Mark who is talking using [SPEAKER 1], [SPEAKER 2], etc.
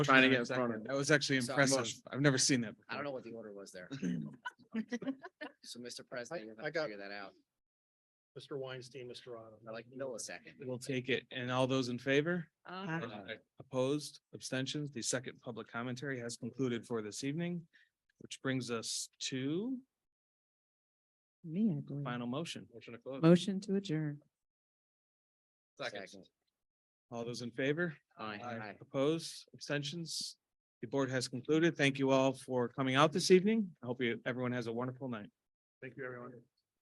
[SPEAKER 1] trying to
[SPEAKER 2] that
[SPEAKER 1] get in
[SPEAKER 2] exact
[SPEAKER 1] front of
[SPEAKER 2] word.
[SPEAKER 1] it. That was actually
[SPEAKER 2] So I'm-
[SPEAKER 1] impressive. I've never seen that.
[SPEAKER 2] I don't know what the order was there. So Mr. President, you'll
[SPEAKER 3] I
[SPEAKER 2] have to
[SPEAKER 3] got-
[SPEAKER 2] figure that out.
[SPEAKER 3] Mr. Weinstein, Mr. Otto.
[SPEAKER 2] I like millisecond.
[SPEAKER 1] We'll take it. And all those in favor?
[SPEAKER 4] Aye.
[SPEAKER 2] Aye.
[SPEAKER 1] Opposed, abstentions? The second public commentary has concluded for this evening, which brings us to
[SPEAKER 4] Me, I believe.
[SPEAKER 1] final motion. Motion to close.
[SPEAKER 4] Motion to adjourn.
[SPEAKER 2] Second.
[SPEAKER 1] All those in favor?
[SPEAKER 2] Aye. Aye.
[SPEAKER 1] Opposed, abstentions? The board has concluded. Thank you all for coming out this evening. I hope you, everyone has a wonderful night.
[SPEAKER 3] Thank you, everyone.